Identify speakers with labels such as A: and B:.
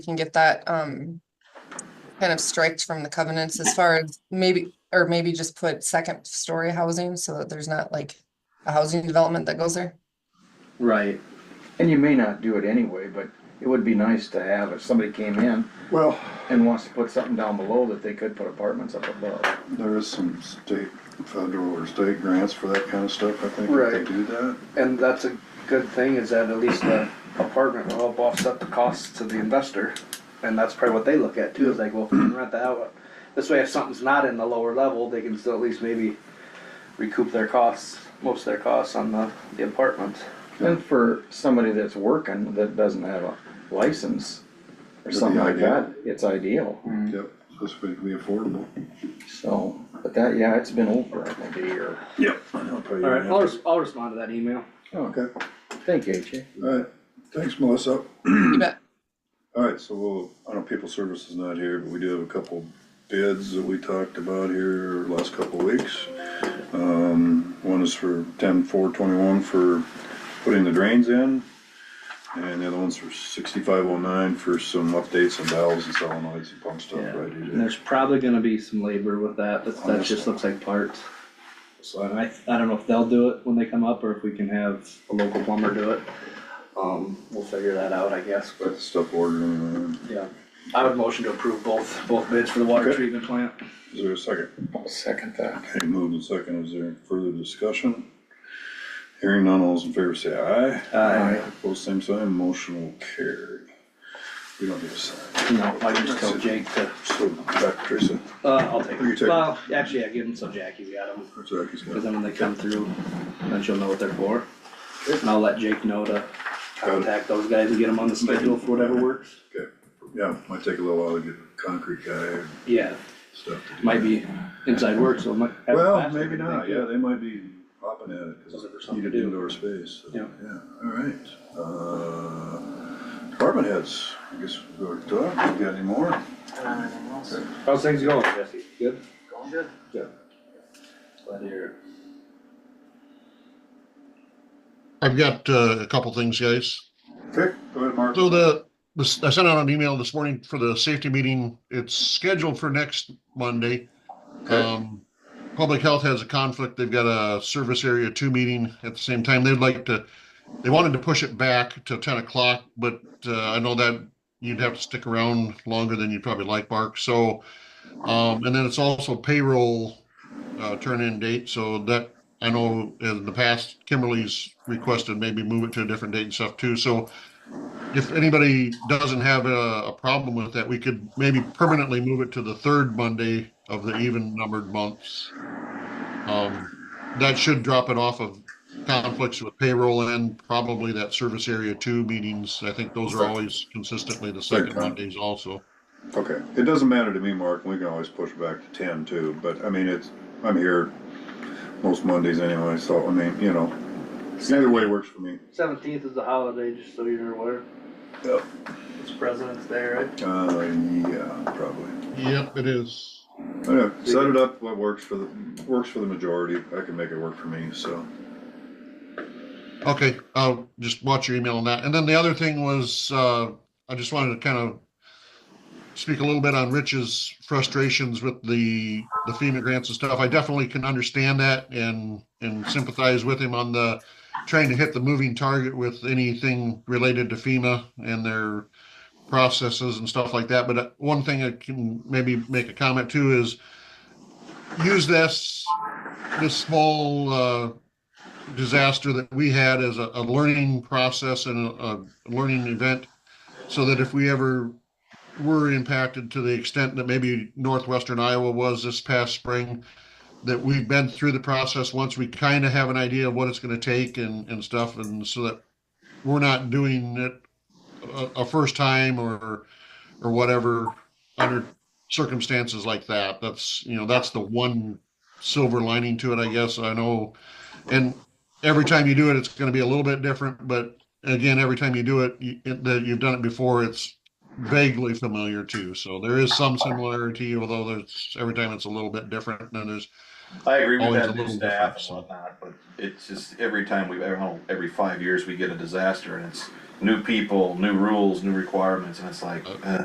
A: can get that um kind of striked from the covenants as far as maybe, or maybe just put second story housing so that there's not like a housing development that goes there.
B: Right. And you may not do it anyway, but it would be nice to have if somebody came in
C: Well,
B: and wants to put something down below that they could put apartments up above.
C: there is some state, federal or state grants for that kind of stuff, I think, if they
D: Right.
C: do that.
D: And that's a good thing is that at least uh, the apartment will help offset the costs to the investor. And that's probably what they look at too, is like, well, if we can rent that out, this way if something's not in the lower level, they can still at least maybe recoup their costs, most of their costs on the, the apartment.
B: And for somebody that's working that doesn't have a license or
C: It'd be
B: something like
C: ideal.
B: that, it's ideal.
C: Yep, supposed to be affordable.
B: So, but that, yeah, it's been over, I think, a year.
C: Yep. All
D: Alright, I'll, res- I'll respond to that email.
B: Okay,
C: Okay,
B: thank you, AJ.
C: all right, thanks, Melissa.
A: You bet.
C: All right, so we'll, I know people services not here, but we do have a couple bids that we talked about here last couple of weeks. Um, one is for ten four twenty-one for putting the drains in. And the other one's for sixty-five oh nine for some updates on valves and solenoids and pump stuff,
D: Yeah.
C: right?
D: And
C: EJ?
D: there's probably gonna be some labor with that, that's, that just looks like parts. So I, I don't know if they'll do it when they come up, or if we can have a local plumber do it. Um, we'll figure that out, I guess, but.
C: Got the stuff ordered and, uh,
D: Yeah, I would motion to approve both, both bids for the water
C: Okay.
D: treatment plant.
C: is there a second?
B: I'll second that.
C: Okay, moved and second, is there further discussion? Hearing none, all those in favor say aye.
D: Aye.
C: Opposed, same sign, motion will carry. We don't need a sign.
D: No, I can just tell Jake to,
C: So, back Teresa,
D: uh, I'll take
C: You
D: them.
C: take 'em.
D: Well, actually, I give them so Jackie's got them,
C: or Jackie's got
D: cause
C: it.
D: then when they come through, then she'll know what they're for. And I'll let Jake know to contact those guys and get them on the schedule for whatever works.
C: Okay, yeah, might take a little while to get a concrete guy and
D: Yeah,
C: stuff to do.
D: might be inside work, so it might. have
C: Well,
D: plastic,
C: maybe
D: I
C: not,
D: think.
C: yeah, they might be hopping at it, cause
D: Looking for
C: it's
D: something to
C: needed
D: do.
C: indoor space, so, yeah,
D: Yeah.
C: all right. Uh, department heads, I guess we'll go to Doug, you got any more?
D: How's things going, Jesse? Good? Going good. Good. Glad to hear it.
E: I've got uh, a couple things, guys.
C: Okay, go ahead, Mark.
E: So the, this- I sent out an email this morning for the safety meeting. It's scheduled for next Monday.
C: Okay.
E: Um, Public Health has a conflict. They've got a service area two meeting at the same time. They'd like to, they wanted to push it back to ten o'clock, but uh, I know that you'd have to stick around longer than you'd probably like, Mark. So, um, and then it's also payroll uh, turn-in date, so that, I know in the past Kimberly's requested maybe move it to a different date and stuff too. So if anybody doesn't have a, a problem with that, we could maybe permanently move it to the third Monday of the even numbered months. Um, that should drop it off of conflicts with payroll and probably that service area two meetings. I think those are always consistently the second
C: Okay.
E: Mondays also.
C: Okay, it doesn't matter to me, Mark, we can always push back to ten too, but I mean, it's, I'm here most Mondays anyway, so I mean, you know, either way works for me.
D: Seventeenth is a holiday, just so you're aware.
C: Yep.
D: It's President's Day, right?
C: Uh, yeah, probably.
E: Yep, it is.
C: I don't know, set it up what works for the, works for the majority, I can make it work for me, so.
E: Okay, I'll just watch your email on that. And then the other thing was, uh, I just wanted to kind of speak a little bit on Rich's frustrations with the, the FEMA grants and stuff. I definitely can understand that and, and sympathize with him on the, trying to hit the moving target with anything related to FEMA and their processes and stuff like that. But uh, one thing I can maybe make a comment to is use this, this small, uh, disaster that we had as a, a learning process and a, a learning event so that if we ever were impacted to the extent that maybe northwestern Iowa was this past spring, that we've been through the process once we kind of have an idea of what it's going to take and, and stuff, and so that we're not doing it a, a first time or or whatever under circumstances like that. That's you know that's the one silver lining to it, I guess. I know, and every time you do it, it's going to be a little bit different. But again, every time you do it, you, it- that you've done it before, it's vaguely familiar too. So there is some similarity, although there's every time it's a little bit different. And there's
F: I agree with
E: Always a
F: that new
E: little
F: staff
E: different, so.
F: and whatnot, but it's just every time we, every, every five years we get a disaster and it's new people, new rules, new requirements, and it's like,
E: Uh,
F: uh,